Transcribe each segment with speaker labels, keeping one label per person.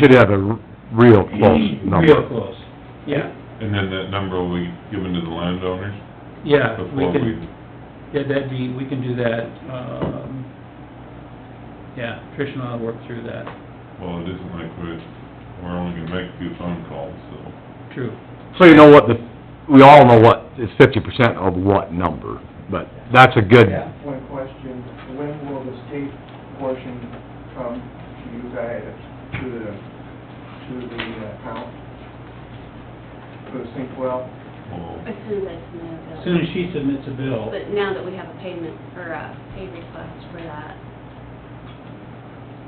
Speaker 1: Should have a r- real close
Speaker 2: Mm-hmm. Real
Speaker 1: number.
Speaker 2: close, yeah,
Speaker 3: And then that number will be given to the landowners
Speaker 2: yeah, we
Speaker 3: before we,
Speaker 2: can, yeah, that'd be, we can do that, um, yeah, Trish and I'll work through that,
Speaker 3: well, it isn't like we're, we're only gonna make a few phone calls, so.
Speaker 2: true.
Speaker 1: So you know what the, we all know what, it's fifty percent of what number, but that's a good,
Speaker 4: Yeah, one question, when will the state portion come to you guys, to the, to the account? For the sink well?
Speaker 3: Well,
Speaker 5: As soon as I submit a bill.
Speaker 2: As Soon as she submits a bill,
Speaker 5: But now that we have a payment, or a pay request for that,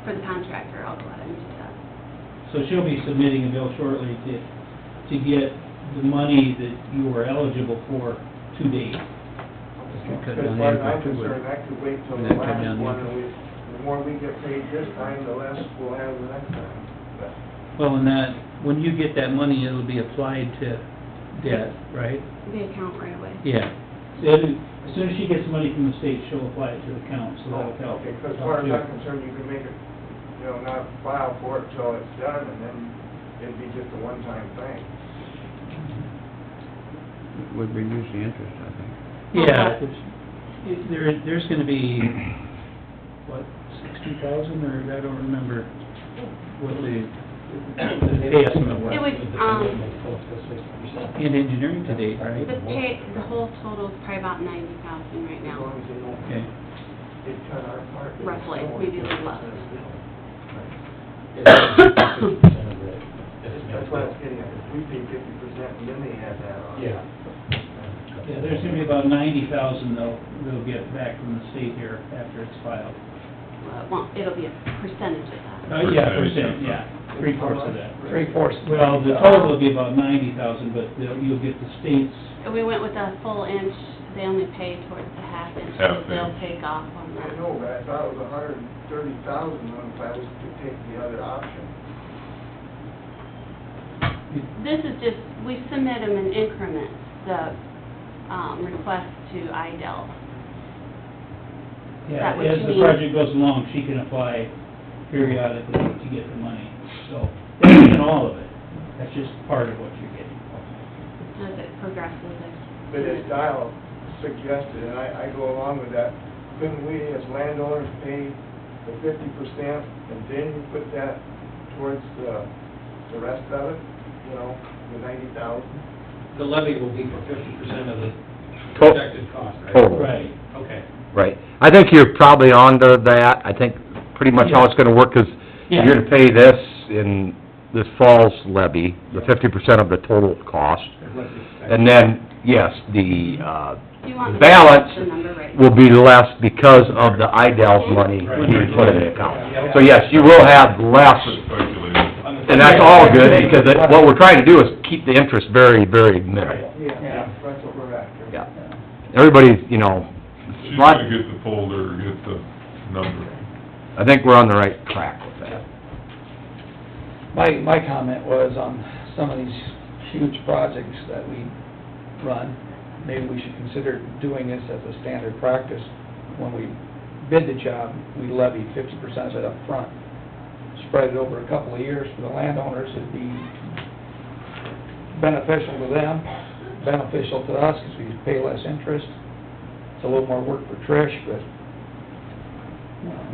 Speaker 5: for the contractor, I'll go out and do that.
Speaker 2: so she'll be submitting a bill shortly to, to get the money that you were eligible for to date. cut
Speaker 4: Because
Speaker 2: down
Speaker 4: what
Speaker 2: the
Speaker 4: I'm
Speaker 2: impact would-
Speaker 4: concerned, I could wait till
Speaker 2: and that
Speaker 4: the
Speaker 2: cut down
Speaker 4: last
Speaker 2: the
Speaker 4: one, and
Speaker 2: impact.
Speaker 4: we, the more we get paid this time, the less we'll have the next time. But
Speaker 2: Well, and that, when you get that money, it'll be applied to debt, right?
Speaker 5: The account right away.
Speaker 2: Yeah. So it- As soon as she gets money from the state, she'll apply it to the account, so that'll help.
Speaker 4: Because as far as I'm concerned, you can make it, you know, not file for it till it's done, and then it'd be just a one-time thing.
Speaker 6: would reduce the interest, I think.
Speaker 2: Yeah, it's- it- there, there's gonna be, what, sixty thousand, or I don't remember what the, the pay estimate was.
Speaker 5: It was, um,
Speaker 2: In engineering to date, right?
Speaker 5: the pay, the whole total is probably about ninety thousand right
Speaker 4: As long
Speaker 5: now.
Speaker 4: as they don't
Speaker 2: Okay.
Speaker 4: It cut our part.
Speaker 5: Roughly, maybe a little less.
Speaker 4: That's what I was getting at, if we pay fifty percent and then they add that on.
Speaker 7: Yeah.
Speaker 2: Yeah, there's gonna be about ninety thousand though, we'll get back from the state here after it's filed.
Speaker 5: Well, it won't, it'll be a percentage of that.
Speaker 2: Uh, yeah, percent, yeah, three fourths of that.
Speaker 4: Three fourths.
Speaker 2: Well, the total will be about ninety thousand, but the- you'll get the state's,
Speaker 5: And we went with a full inch, they only pay towards the half inch, so
Speaker 3: Half
Speaker 5: they'll
Speaker 3: inch.
Speaker 5: take off on
Speaker 4: I
Speaker 5: that.
Speaker 4: know, but I thought it was a hundred and thirty thousand if I was to take the other option.
Speaker 5: This is just, we submit them in increments, the, um, request to IDEL.
Speaker 2: yeah,
Speaker 5: That what
Speaker 2: as
Speaker 5: you
Speaker 2: the
Speaker 5: mean?
Speaker 2: project goes along, she can apply periodically to get the money. So, that's in all of it, that's just part of what you're getting.
Speaker 5: As it progresses, I.
Speaker 4: But as Dial suggested, and I, I go along with that, couldn't we as landowners pay the fifty percent and then you put that towards the, the rest of it? You know, the ninety thousand?
Speaker 7: The levy will be for fifty percent of the
Speaker 1: To-
Speaker 7: projected cost, right?
Speaker 2: Oh.
Speaker 1: total.
Speaker 2: Right.
Speaker 7: Okay.
Speaker 1: Right. I think you're probably onto that. I think pretty much how it's gonna work is
Speaker 2: Yeah.
Speaker 1: you're gonna pay this in this fall's levy, the fifty percent of the total cost.
Speaker 7: Unless it's-
Speaker 1: And then, yes, the, uh,
Speaker 5: Do you want me to
Speaker 1: balance
Speaker 5: get the number right?
Speaker 1: will be less because of the IDEL's money being put in the account. So yes, you will have less,
Speaker 3: Speculating.
Speaker 7: On the-
Speaker 1: and that's all good because it- what we're trying to do is keep the interest very, very minimal.
Speaker 4: Yeah, that's what we're after.
Speaker 1: Yeah. Everybody's, you know,
Speaker 3: She's
Speaker 1: lot-
Speaker 3: gonna get the folder, get the number.
Speaker 1: I think we're on the right track with that.
Speaker 8: My, my comment was on some of these huge projects that we run, maybe we should consider doing this as a standard practice. When we bid the job, we levy fifty percent of it up front. Spread it over a couple of years for the landowners, it'd be beneficial to them, beneficial to us, because we could pay less interest. It's a little more work for Trish, but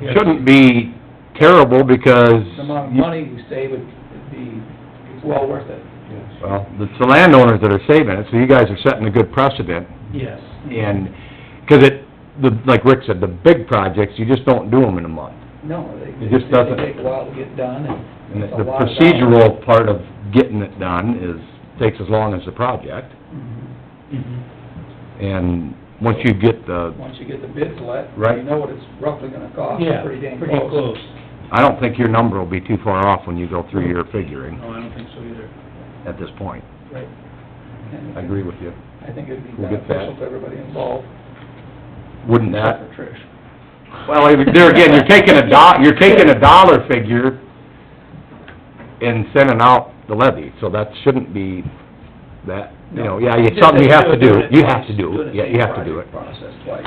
Speaker 2: Yeah.
Speaker 1: shouldn't be terrible because,
Speaker 8: the amount of money we save would be well worth it.
Speaker 1: well, it's the landowners that are saving it, so you guys are setting a good precedent.
Speaker 2: Yes.
Speaker 1: And, 'cause it, the, like Rick said, the big projects, you just don't do them in a month.
Speaker 8: No, they,
Speaker 1: It just doesn't-
Speaker 8: they take a while to get done,
Speaker 1: And
Speaker 8: and
Speaker 1: the
Speaker 8: it's a
Speaker 1: the
Speaker 8: lot of
Speaker 1: procedural part of getting it done is, takes as long as the project.
Speaker 2: Mm-hmm.
Speaker 1: And once you get the,
Speaker 8: dollars. Once you get the bids let,
Speaker 1: Right.
Speaker 8: you know what it's roughly gonna cost,
Speaker 2: Yeah,
Speaker 8: pretty dang
Speaker 2: pretty
Speaker 8: close.
Speaker 2: close.
Speaker 1: I don't think your number will be too far off when you go through your figuring
Speaker 2: No, I don't think so either.
Speaker 1: at this point.
Speaker 8: Right.
Speaker 1: I agree with you.
Speaker 8: I think it'd be
Speaker 1: We'll get that.
Speaker 8: beneficial to everybody involved,
Speaker 1: Wouldn't that
Speaker 8: except for Trish.
Speaker 1: Well, there again, you're taking a do, you're taking a dollar figure and sending out the levy, so that shouldn't be that, you know, yeah, it's something you have to do, you have to do it, yeah, you have to do it.
Speaker 8: Process twice,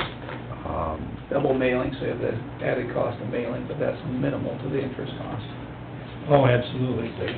Speaker 1: Um,
Speaker 8: double mailing, so you have the added cost of mailing, but that's minimal to the interest cost.
Speaker 2: Oh, absolutely.